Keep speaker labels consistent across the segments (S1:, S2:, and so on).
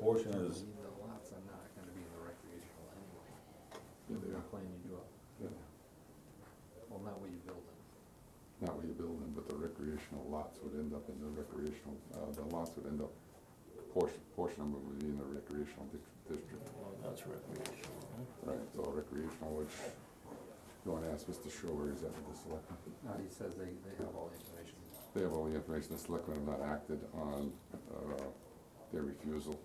S1: portion is,
S2: The lots are not gonna be in the recreational anyway. You're gonna plan you do,
S3: Yeah,
S2: well, not what you build them.
S3: Not what you're building, but the recreational lots would end up in the recreational, uh, the lots would end up, portion, portion of them would be in the recreational dic- district.
S4: That's recreational, huh?
S3: Right, it's all recreational, which, you wanna ask Mr. Shore, is that with the selectmen?
S2: No, he says they, they have all the information.
S3: They have all the information, the selectmen have not acted on, uh, their refusal.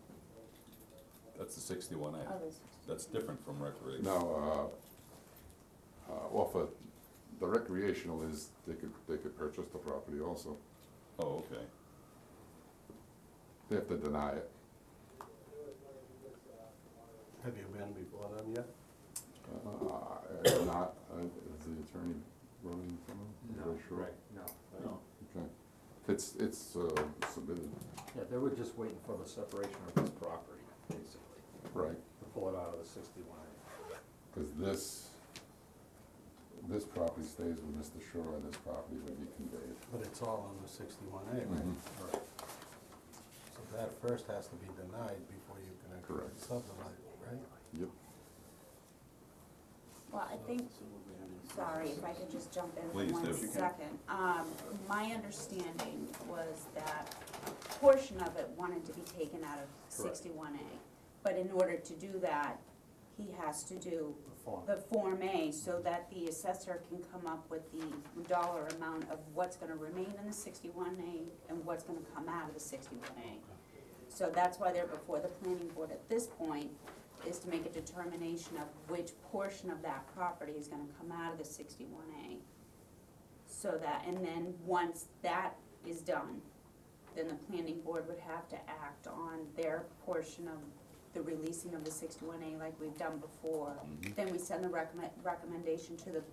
S1: that's the sixty-one A.
S5: Others.
S1: That's different from recreation.
S3: Now, uh, uh, well, for the recreational is, they could, they could purchase the property also,
S1: Oh, okay.
S3: they have to deny it.
S4: Have you been before them yet?
S3: Uh, if not, uh, is the attorney running from them? Are they sure?
S2: No,
S4: No.
S3: Okay, it's, it's uh, submitted,
S2: yeah, they were just waiting for the separation of this property, basically,
S3: right,
S2: to pull it out of the sixty-one A.
S3: because this, this property stays with Mr. Shore, and this property would be conveyed.
S4: But it's all on the sixty-one A, right?
S3: Mm-hmm.
S2: Right.
S4: So that first has to be denied before you can actually
S3: Correct.
S4: subdivide, right?
S3: Yep,
S5: Well, I think, sorry, if I could just jump in
S1: Please,
S5: for one
S1: if you can.
S5: second. Um, my understanding was that a portion of it wanted to be taken out of sixty-one A. But in order to do that, he has to do
S2: The farm.
S5: the Form A so that the assessor can come up with the dollar amount of what's gonna remain in the sixty-one A and what's gonna come out of the sixty-one A. So that's why they're before the planning board at this point, is to make a determination of which portion of that property is gonna come out of the sixty-one A. So that, and then once that is done, then the planning board would have to act on their portion of the releasing of the sixty-one A like we've done before.
S1: Mhm.
S5: Then we send the recommend, recommendation to the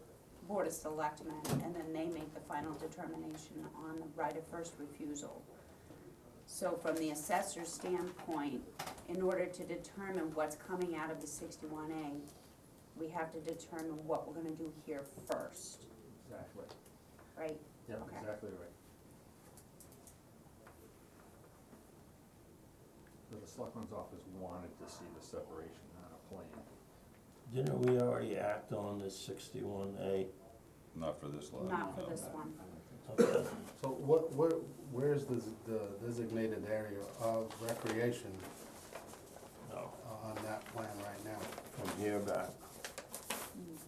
S5: Board of Selectmen, and then they make the final determination on the right of first refusal. So from the assessor's standpoint, in order to determine what's coming out of the sixty-one A, we have to determine what we're gonna do here first,
S2: Exactly,
S5: right?
S2: yeah,
S5: Okay.
S2: exactly right. So The selectman's office wanted to see the separation on a plan.
S6: Didn't we already act on this sixty-one A?
S1: Not for this lot.
S5: Not for
S1: no.
S5: this one.
S4: So what, where, where's the, the designated area of recreation
S6: No,
S4: on that plan right now?
S6: from here back.
S5: Mm.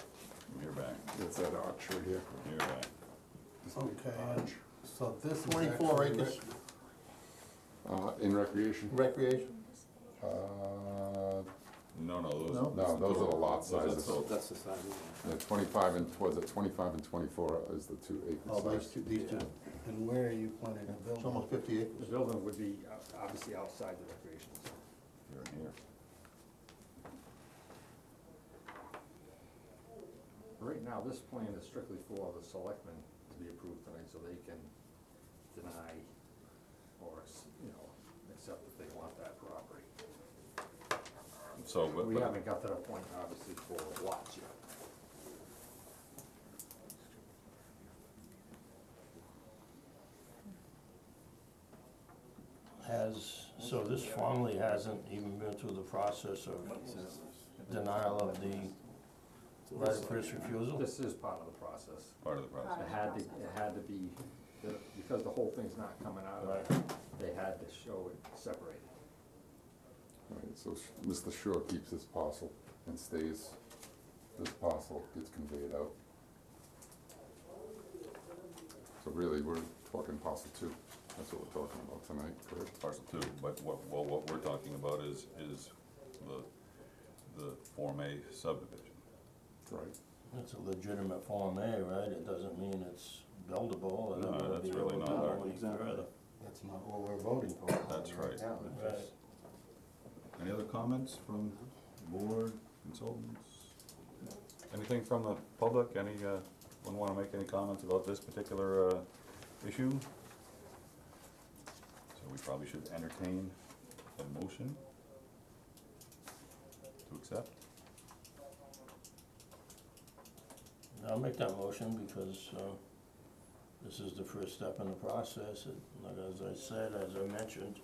S1: From here back,
S3: it's that archer here.
S1: from here back.
S3: This big
S4: Okay.
S3: arch.
S4: So this is actually.
S7: 24 acres.
S4: rec-
S3: Uh, in recreation,
S7: Recreation?
S3: uh,
S1: No, no, those.
S3: No, those are the lot
S1: those are
S3: sizes.
S1: sold.
S7: That's the size.
S3: the twenty-five and, was it twenty-five and twenty-four is the two
S7: Oh,
S3: acre
S7: these
S3: size?
S7: two, these two,
S4: And where are you planning to build?
S7: it's almost fifty
S2: The
S7: acres.
S2: building would be uh, obviously outside the recreation zone.
S1: Here and here.
S2: Right now, this plan is strictly for the selectmen to be approved tonight, so they can deny or, you know, accept that they want that property.
S1: So, but,
S2: We
S1: but,
S2: haven't got to that point, obviously, for lots yet.
S6: Has, so this formally hasn't even been through the process of denial of the right of first refusal?
S2: This is part of the process.
S1: part of the process.
S5: Part
S2: It
S5: of the
S2: had to,
S5: process.
S2: it had to be, the- because the whole thing's not coming out of it, they had to show it separated.
S3: Right, so Sh- Mr. Shore keeps his parcel and stays, this parcel gets conveyed out. So really, we're talking parcel two, that's what we're talking about tonight, correct?
S1: Parcel two, but what, well, what we're talking about is, is the, the Form A subdivision.
S3: Right.
S6: It's a legitimate Form A, right? It doesn't mean it's buildable and
S1: No,
S6: it
S1: that's
S6: wouldn't be able
S1: really
S6: to
S1: not
S6: go
S1: our-
S6: any further.
S4: That's not what we're voting for.
S1: That's right.
S4: now.
S6: Right.
S1: Any other comments from board consultants? Anything from the public, any, uh, one wanna make any comments about this particular, uh, issue? So we probably should entertain a motion to accept.
S6: I'll make that motion because, uh, this is the first step in the process. It- Like as I said, as I mentioned,